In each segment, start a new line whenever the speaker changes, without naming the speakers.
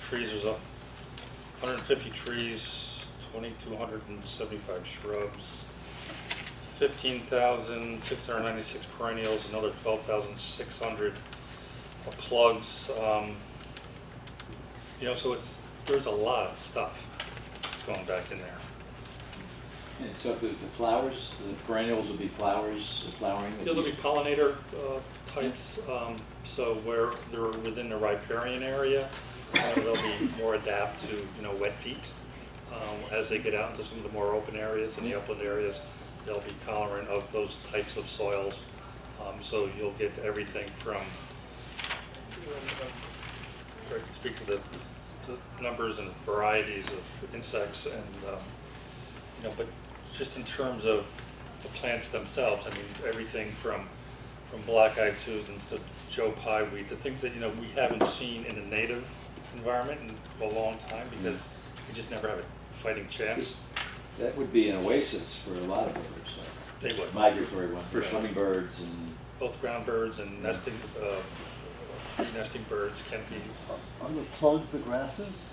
trees, there's a hundred and fifty trees, twenty-two hundred and seventy-five shrubs, fifteen thousand six hundred ninety-six perennials, another twelve thousand six hundred plugs. um, You know, so it's, there's a lot of stuff that's going back in there.
Except that the flowers, the perennials will be flowers, the flowering.
Yeah, There'll be pollinator uh, types, um, so where they're within the riparian area, uh, they'll be more adapt to, you know, wet feet. Um, As they get out into some of the more open areas and the upland areas, they'll be tolerant of those types of soils. Um, So you'll get everything from, Greg can speak to the the numbers and varieties of insects and um, you know, but just in terms of the plants themselves, I mean, everything from, from black-eyed Susans to Joe Pye weed, the things that, you know, we haven't seen in a native environment in a long time because you just never have a fighting chance.
That would be an oasis for a lot of birds, like
They would.
migratory ones,
For
for
sure.
hummingbirds and.
Both ground birds and nesting, uh, tree nesting birds can be.
On the plugs, the grasses?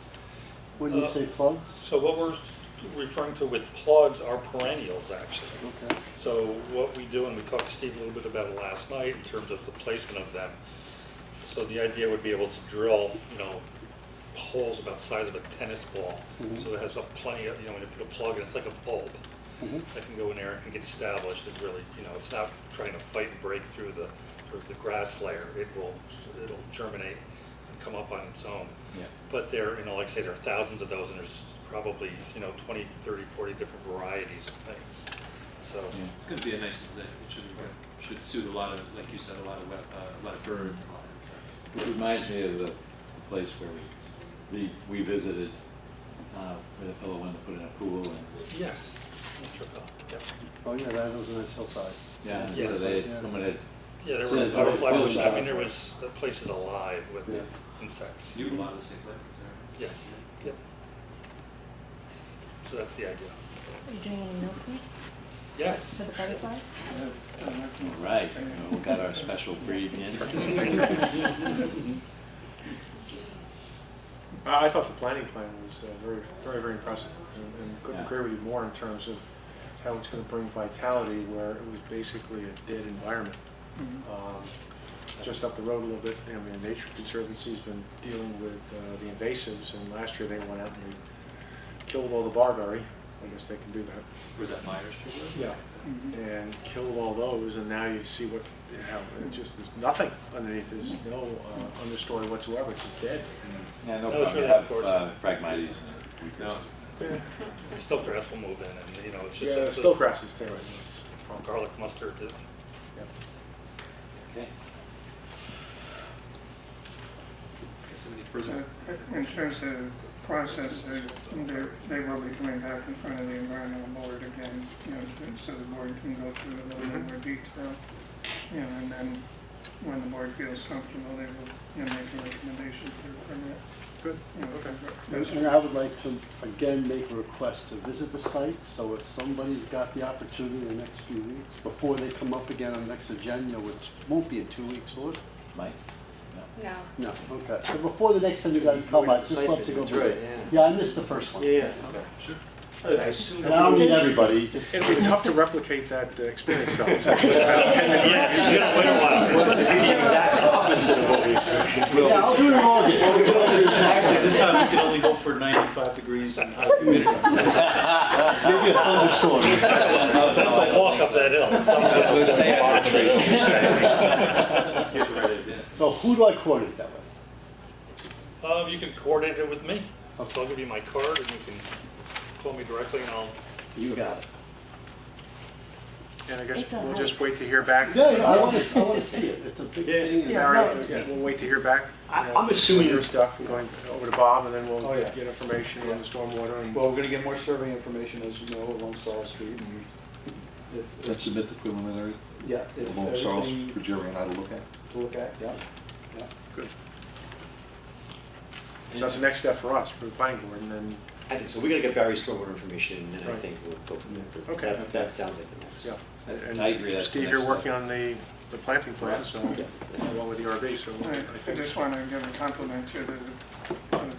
When you
Uh,
say plugs?
So what we're referring to with plugs are perennials, actually.
Okay.
So what we do, and we talked to Steve a little bit about it last night in terms of the placement of them. So the idea would be able to drill, you know, holes about the size of a tennis ball.
Mhm.
Mm-hmm.
So it has a plenty of, you know, when you put a plug in, it's like a bulb
Mhm.
that can go in there and get established and really, you know, it's not trying to fight and break through the, through the grass layer. It will, it'll germinate and come up on its own.
Yeah.
But there, you know, like I say, there are thousands of those and there's probably, you know, 20, 30, 40 different varieties of things. So,
Yeah.
It's going to be a nice mosaic. It should, be- should suit a lot of, like you said, a lot of, web- uh, a lot of birds and a lot of
It
insects.
reminds me of the the place where we, we we visited, uh, where the fellow wanted to put in a pool and,
yes, Mr. Bell, yeah.
Oh, yeah, that was a nice hillside.
yeah, and so
Yes.
they,
Yeah.
someone had,
Yeah, there
So
were
it's already
butterfly bushes, I
filled
mean, there
out.
was, the place is alive with
Yeah.
insects.
You have a lot of the same flavors there.
Yes, yep. So that's the idea.
Are you doing any milking
Yes.
for the butterflies?
all right, you know, we got our special breed in.
Mm-hmm.
I I thought the planning plan was uh, very, very, very impressive, and- and couldn't
Yeah.
agree with you more in terms of how it's going to bring vitality where it was basically a dead environment. Um, Just up the road a little bit, I mean, Nature Conservancy's been dealing with uh, the invasives, and last year they went out and they killed all the barberry, I guess they can do that.
Was that Myers Street?
Yeah. And killed all those, and now you see what, how, it just, there's nothing underneath, there's no uh, understory whatsoever, it's just dead.
Yeah, no
That was
problem, you
really
have
unfortunate.
uh, Phragmites and we
No.
It's still grass will move in and, you know, it's just.
Yeah,
it's a-
still grass is there. It's a problem.
Garlic mustard, it-
Yep.
Okay.
Guess any further?
In terms of process, uh, they- they will be coming back in front of the environmental board again, you know, to- so the board can go through it a little bit
Mm-hmm.
more detail. You know, and then when the board feels comfortable, they will, you know, make a recommendation for a permit.
Good,
you know,
okay.
And and I would like to, again, make a request to visit the site, so if somebody's got the opportunity in the next few weeks, before they come up again on the next agenda, which won't be in two weeks, will it?
Mike? No.
No.
No, okay, so before the next time you guys come, I'd just love to go
That's right,
visit. Yeah, I missed the first one.
Yeah,
Sure.
And I don't mean everybody, just
It'll be tough to replicate that uh, experience though. It's
Yeah, it's been a little while.
exact opposite of what we
Yeah, I'll do it in August.
Actually, this time we can only go for 95 degrees and high humidity.
Maybe a thunderstorm.
That's a walk up that hill. Somebody's
stay
gonna
out of the
bother you,
trees.
so
You have the right idea.
So who do I coordinate that with?
you're safe. Um, you can coordinate it with me, so I'll give you my card and you can call me directly and I'll
You got it.
And I guess
It's a
we'll
hike.
just wait to hear back.
Yeah, yeah, I want to, I want to see it. It's a big
Yeah.
thing.
All right, We'll wait to hear back.
I-
you know,
I'm assuming-
Your stuff, and going over to Bob, and then we'll
Oh, yeah.
get information on the stormwater and.
Well, we're gonna get more survey information, as you know, along Sorrel Street, and if,
That's
if-
a bit the preliminary,
yeah, if
along Charles
everything
for Jerry and I to look at.
to look at, yeah.
So that's the next step for us, for the planning board, and then,
I think so. We're going to get Barry's stormwater information, and I
Right.
think we'll go from there.
Okay.
That- That sounds like the next.
yeah. And
I agree, that's the
Steve,
next
you're
step.
working on the, the planting plan, so, along with the RV, so.
I
I
I
think-
just want to give a compliment to the